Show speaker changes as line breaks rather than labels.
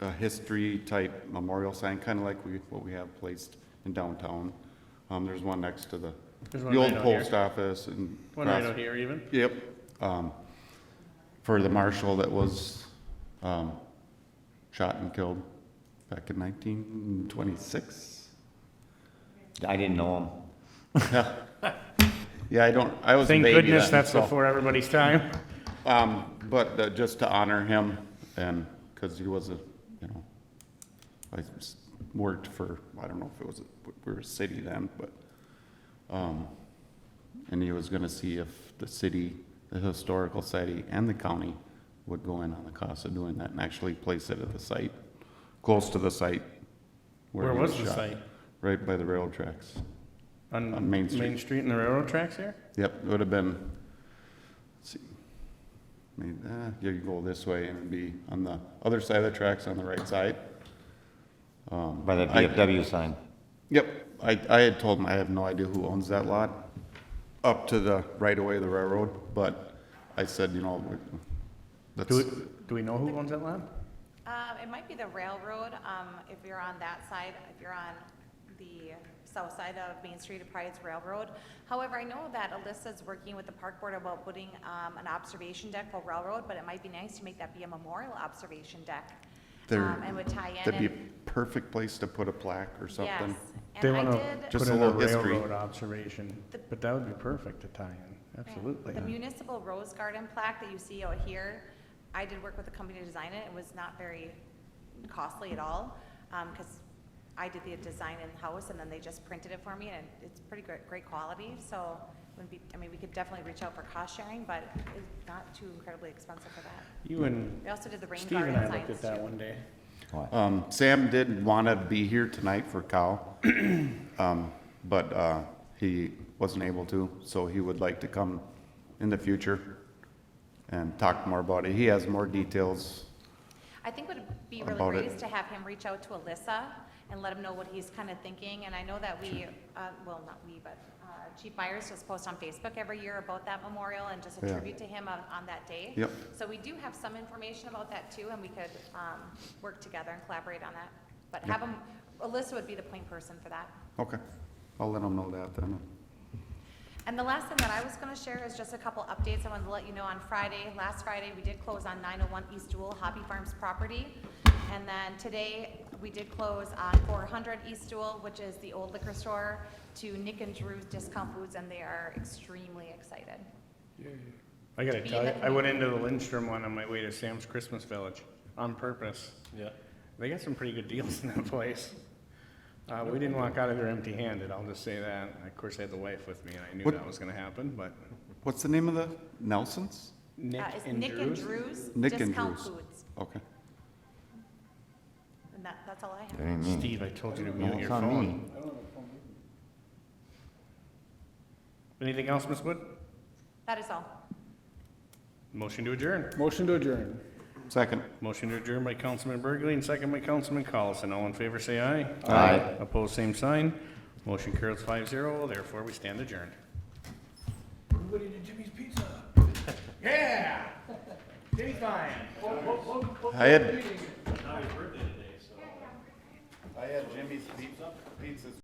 a history-type memorial sign, kind of like we, what we have placed in downtown. Um, there's one next to the,
There's one
the
right
old
out here.
post office and.
One right
across-
out here even.
Yep. Um, for the marshal that was, um, shot and killed back in nineteen twenty-six.
I didn't know him.
Yeah, I don't, I was a
Thank
baby
goodness
then,
that's
so-
before everybody's time.
Um, but uh, just to honor him and, cause he was a, you know, I s- worked for, I don't know if it was, a- we were a city then, but, um, and he was gonna see if the city, the historical society and the county would go in on the cost of doing that and actually place it at the site, close to the site.
Where
he
was the
shot.
site?
Right by the railroad tracks.
On
On Main Street.
Main Street and the railroad tracks here?
Yep, it would have been, let's see, I mean, uh, yeah, you go this way and it'd be on the other side of the tracks on the right side.
By the
I-
VFW sign.
Yep, I, I had told him, I have no idea who owns that lot, up to the right away of the railroad, but I said, you know, we-
Do, we-
that's,
do we know who owns that land?
Um, it might be the railroad, um, if you're on that side, if you're on the south side of Main Street, it probably is Railroad. However, I know that Alyssa's working with the park board about putting, um, an observation deck for Railroad, but it might be nice to make that be a memorial observation deck.
There-
um, And would tie in.
that'd be
and-
a perfect place to put a plaque or something.
Yes,
They
and I
want
did.
to
Just
put
a
in a
little history.
railroad observation, but that would be perfect to tie in,
Yeah.
absolutely.
The municipal rose garden plaque that you see out here, I did work with a company to design it. It was not very costly at all, because I did the design in-house, and then they just printed it for me, and it's pretty great, great quality, so wouldn't be, I mean, we could definitely reach out for cost sharing, but it's not too incredibly expensive for that.
You and
We also did the rain
Steve
garden
and I looked
signs,
at that
too.
one day.
Um, Sam did want to be here tonight for Cal, um, but uh, he wasn't able to, so he would like to come in the future and talk more about it. He has more details.
I think what would be really
About
great
it.
is to have him reach out to Alyssa and let him know what he's kind of thinking, and I know that we, uh, well, not we, but uh, Chief Myers just posts on Facebook every year about that memorial and just a
Yeah.
tribute to him on, on that day.
Yep.
So we do have some information about that too, and we could um, work together and collaborate on that. But have him, Alyssa would be the point person for that.
Okay, I'll let him know that then.
And the last thing that I was gonna share is just a couple updates. I wanted to let you know on Friday, last Friday, we did close on nine oh one East Dual Hobby Farms property. And then today, we did close on four hundred East Dual, which is the old liquor store, to Nick and Drew's Discount Foods, and they are extremely excited.
I gotta
Be
tell you,
that
I went into the Lindstrom one on my way to Sam's Christmas Village on purpose.
Yeah.
They got some pretty good deals in that place. Uh, we didn't walk out of there empty-handed, I'll just say that. Of course, I had the wife with me, and I knew
What-
that was gonna happen, but
What's the name of the, Nelson's?
Nick
Uh, it's
and
Nick and
Drew's.
Drew's
Nick and
Discount
Drew's.
Foods,
Okay.
and that, that's all I have.
That ain't me.
Mm. Steve, I told you to
No,
mute your
it's on me.
phone. Anything else, Ms. Wood?
That is all.
Motion to adjourn.
Motion to adjourn.
Second.
Motion to adjourn by Councilman Burgley and second by Councilman Collison. All in favor, say aye.
Aye.
Opposed, same sign. Motion carries five zero, therefore we stand adjourned.
Everybody to Jimmy's Pizza.
Yeah! Jimmy Fine.
I had. I had Jimmy's pizza, pizza's